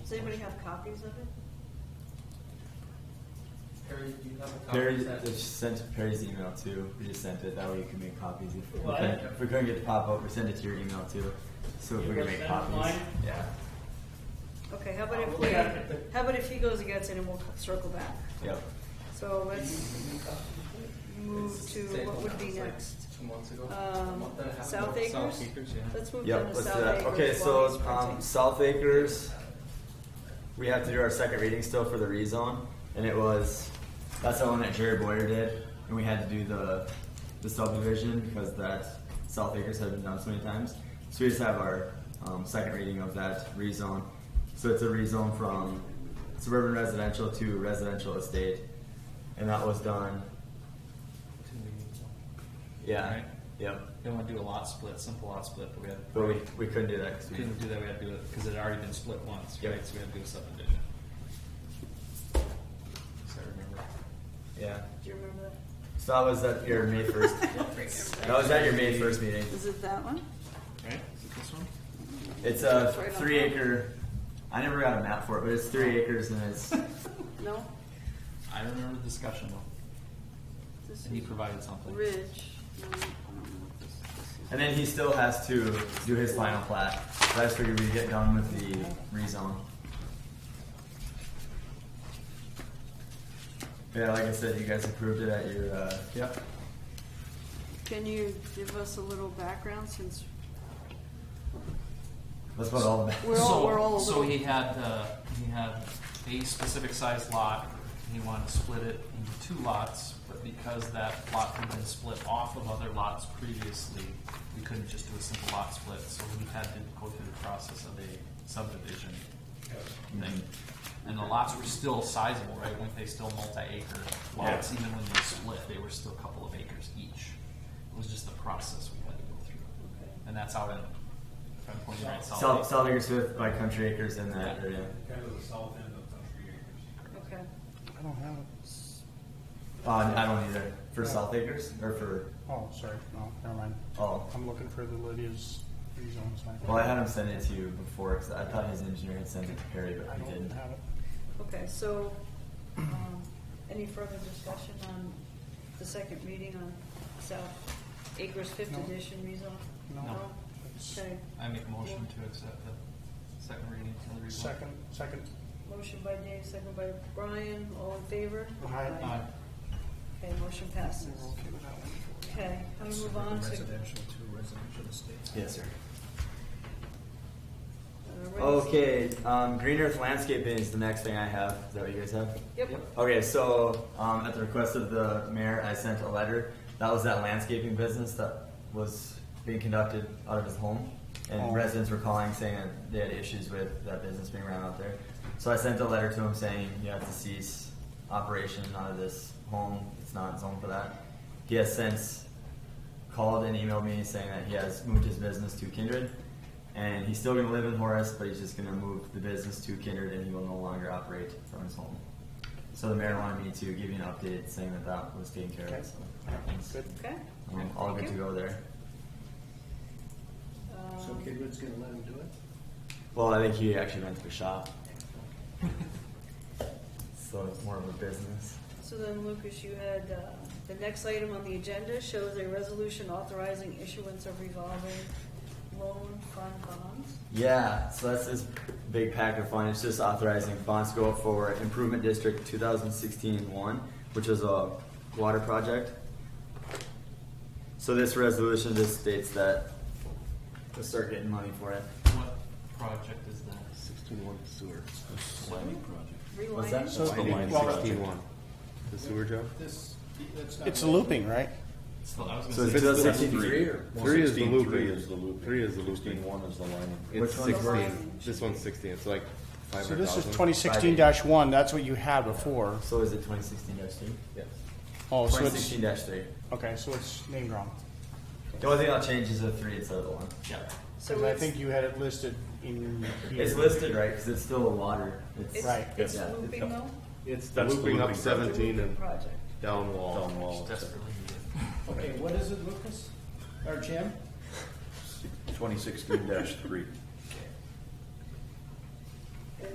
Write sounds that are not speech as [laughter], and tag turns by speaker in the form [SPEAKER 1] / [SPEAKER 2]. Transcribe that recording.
[SPEAKER 1] Does anybody have copies of it?
[SPEAKER 2] Perry, do you have a copy
[SPEAKER 3] Perry
[SPEAKER 2] of that?
[SPEAKER 3] just sent Perry's email too. We just sent it. That way you can make copies. If we,
[SPEAKER 4] What?
[SPEAKER 3] couldn't, if we couldn't get the pop up, we send it to your email too. So if
[SPEAKER 4] You
[SPEAKER 3] we can
[SPEAKER 4] wanna
[SPEAKER 3] make
[SPEAKER 4] send
[SPEAKER 3] copies.
[SPEAKER 4] mine?
[SPEAKER 3] Yeah.
[SPEAKER 1] Okay, how
[SPEAKER 2] Uh,
[SPEAKER 1] about
[SPEAKER 4] I'll
[SPEAKER 1] if
[SPEAKER 4] look
[SPEAKER 1] we,
[SPEAKER 4] at it.
[SPEAKER 1] how about if he goes against it and we'll circle back?
[SPEAKER 3] Yep.
[SPEAKER 1] So let's
[SPEAKER 4] Let's.
[SPEAKER 1] move
[SPEAKER 2] It's
[SPEAKER 1] to
[SPEAKER 2] the same
[SPEAKER 1] what
[SPEAKER 2] one
[SPEAKER 1] would
[SPEAKER 2] that
[SPEAKER 1] be
[SPEAKER 2] was, like,
[SPEAKER 1] next.
[SPEAKER 2] Two months ago. a
[SPEAKER 1] Um,
[SPEAKER 2] month and a half
[SPEAKER 1] South
[SPEAKER 2] ago.
[SPEAKER 1] Acres? Let's move down
[SPEAKER 3] Yep.
[SPEAKER 1] to
[SPEAKER 3] Let's do
[SPEAKER 1] South
[SPEAKER 3] that.
[SPEAKER 1] Acres.
[SPEAKER 3] Okay.
[SPEAKER 1] while
[SPEAKER 3] So
[SPEAKER 1] he's
[SPEAKER 3] um,
[SPEAKER 1] printing.
[SPEAKER 3] South Acres. We have to do our second reading still for the rezone, and it was that's the one that Jerry Boyer did, and we had to do the the subdivision because that South Acres had been done so many times. So we just have our um, second reading of that rezone. So it's a rezone from suburban residential to residential estate, and that was done.
[SPEAKER 2] Two meetings ago.
[SPEAKER 3] Yeah.
[SPEAKER 2] Right.
[SPEAKER 3] Yep.
[SPEAKER 2] They want to do a lot split, simple lot split, but we had.
[SPEAKER 3] But we, we couldn't do that because we
[SPEAKER 2] Couldn't do that, we had to do it, because it had already been split once,
[SPEAKER 3] Yep.
[SPEAKER 2] right, so we had to do a subdivision. So I remember.
[SPEAKER 3] yeah.
[SPEAKER 1] Do you remember that?
[SPEAKER 3] So that was at your
[SPEAKER 1] [laughs]
[SPEAKER 3] May first. that was at your May first meeting.
[SPEAKER 1] Is it that one?
[SPEAKER 2] Right, is it this one?
[SPEAKER 3] It's a
[SPEAKER 1] It's right on Oh.
[SPEAKER 3] three
[SPEAKER 1] top.
[SPEAKER 3] acre. I never got a map for it, but it's three acres and it's
[SPEAKER 1] No?
[SPEAKER 2] I remember the discussion though,
[SPEAKER 1] This
[SPEAKER 2] and he
[SPEAKER 1] is
[SPEAKER 2] provided something.
[SPEAKER 1] Ridge. No, I don't know what this- this is.
[SPEAKER 3] and then he still has to do his final plat. So I just figured we'd get done with the rezone. Yeah, like I said, you guys approved it at your uh, yep.
[SPEAKER 1] Can you give us a little background since
[SPEAKER 3] That's about all. the
[SPEAKER 1] We're all-
[SPEAKER 2] so,
[SPEAKER 1] we're all a
[SPEAKER 2] so
[SPEAKER 1] little-
[SPEAKER 2] he had uh, he had a specific size lot. and He wanted to split it into two lots, but because that lot had been split off of other lots previously, we couldn't just do a simple lot split. So we had to go through the process of a subdivision thing. And the lots were still sizable, right? Weren't they still multi-acre lots?
[SPEAKER 3] Yeah.
[SPEAKER 2] Even when they split, they were still a couple of acres each. It was just the process we had to go through, and that's out in. If I'm pointing right, Salt Lake.
[SPEAKER 3] South, South Acres with by Country Acres in that area.
[SPEAKER 5] Kind of the south end of Country Acres.
[SPEAKER 1] Okay.
[SPEAKER 6] I don't have it.
[SPEAKER 3] Uh, I don't either for South Acres or for
[SPEAKER 6] Oh, sorry, no, never mind.
[SPEAKER 3] oh.
[SPEAKER 6] I'm looking for the Lydia's rezone sign.
[SPEAKER 3] Well, I had him send it to you before because I thought his engineer had sent it to Perry, but
[SPEAKER 6] I
[SPEAKER 3] he
[SPEAKER 6] don't
[SPEAKER 3] didn't.
[SPEAKER 6] have it.
[SPEAKER 1] Okay, so, um, any further discussion on the second reading on South Acres Fifth
[SPEAKER 6] No.
[SPEAKER 1] Edition rezone?
[SPEAKER 6] No.
[SPEAKER 1] No?
[SPEAKER 6] It's
[SPEAKER 1] Okay,
[SPEAKER 2] I make a motion to accept the second reading of the revote.
[SPEAKER 6] Second, second,
[SPEAKER 1] motion by Dave, second by Brian, all in favor?
[SPEAKER 6] Aye.
[SPEAKER 2] Aye.
[SPEAKER 1] Okay, motion passes.
[SPEAKER 6] we're okay with that one.
[SPEAKER 1] Okay, can we move on to? uh, Residential.
[SPEAKER 3] Yes, sir.
[SPEAKER 1] Okay.
[SPEAKER 3] Okay, um, Green Earth Landscaping is the next thing I have. Is that what you guys have?
[SPEAKER 1] Yep,
[SPEAKER 3] Okay, so um, at the request of the mayor, I sent a letter. That was that landscaping business that was being conducted out of his home. And
[SPEAKER 6] Oh.
[SPEAKER 3] residents were calling saying that they had issues with that business being ran out there. So I sent a letter to him saying, you have to cease operation out of this home. It's not zoned for that. He has since called and emailed me saying that he has moved his business to Kindred. And he's still going to live in Horace, but he's just going to move the business to Kindred and he will no longer operate from his home. So the mayor wanted me to give you an update saying that that was taken care
[SPEAKER 6] Okay.
[SPEAKER 3] of. So
[SPEAKER 6] Good.
[SPEAKER 1] okay.
[SPEAKER 3] um, all good
[SPEAKER 1] Thank
[SPEAKER 3] to
[SPEAKER 1] you.
[SPEAKER 3] go there.
[SPEAKER 1] Um,
[SPEAKER 5] Kidwood's gonna let him do it?
[SPEAKER 3] Well, I think he actually runs the shop. so it's more of a business.
[SPEAKER 1] So then, Lucas, you had, uh, the next item on the agenda shows a resolution authorizing issuance of revolving loan fund bonds.
[SPEAKER 3] Yeah, so that's this big pack of fun. It's just authorizing bonds to go up for Improvement District 2016-1, which is a water project. So this resolution just states that to start getting money for it.
[SPEAKER 2] What project is that?
[SPEAKER 5] Sixteen one sewer.
[SPEAKER 3] What's
[SPEAKER 1] Rewind.
[SPEAKER 3] that?
[SPEAKER 1] it.
[SPEAKER 6] the line Well, that-
[SPEAKER 5] one. The sewer job?
[SPEAKER 7] This, that's not.
[SPEAKER 6] It's looping, right?
[SPEAKER 2] So I was
[SPEAKER 3] So
[SPEAKER 2] gonna
[SPEAKER 3] it's
[SPEAKER 2] say,
[SPEAKER 3] just-
[SPEAKER 8] Three is the looping.
[SPEAKER 7] Three is the looping.
[SPEAKER 8] Three is the looping.
[SPEAKER 7] Sixteen one is the line.
[SPEAKER 3] Which one's
[SPEAKER 8] It's
[SPEAKER 3] the
[SPEAKER 8] sixteen.
[SPEAKER 1] line?
[SPEAKER 8] This one's sixteen. It's like five
[SPEAKER 6] So
[SPEAKER 8] hundred thousand.
[SPEAKER 6] this is twenty sixteen dash one, that's what you had before.
[SPEAKER 3] So is it 2016-3?
[SPEAKER 8] Yes.
[SPEAKER 6] Oh, so it's,
[SPEAKER 3] 2016-3.
[SPEAKER 6] okay, so it's named wrong.
[SPEAKER 3] The only thing I'll change is the three instead of the one.
[SPEAKER 2] yeah.
[SPEAKER 1] So
[SPEAKER 6] Cause I
[SPEAKER 1] it's-
[SPEAKER 6] think you had it listed in here.
[SPEAKER 3] It's listed right because it's still water. It's,
[SPEAKER 1] It's,
[SPEAKER 6] Right.
[SPEAKER 1] it's
[SPEAKER 3] Yeah.
[SPEAKER 1] looping though?
[SPEAKER 8] It's the
[SPEAKER 7] That's the
[SPEAKER 8] looping up
[SPEAKER 7] looping.
[SPEAKER 8] seventeen
[SPEAKER 1] Looping
[SPEAKER 8] and
[SPEAKER 1] project.
[SPEAKER 8] down wall.
[SPEAKER 7] Down wall.
[SPEAKER 2] Desperately needed.
[SPEAKER 7] Okay, what is it, Lucas? Or Jim? Twenty sixteen dash three.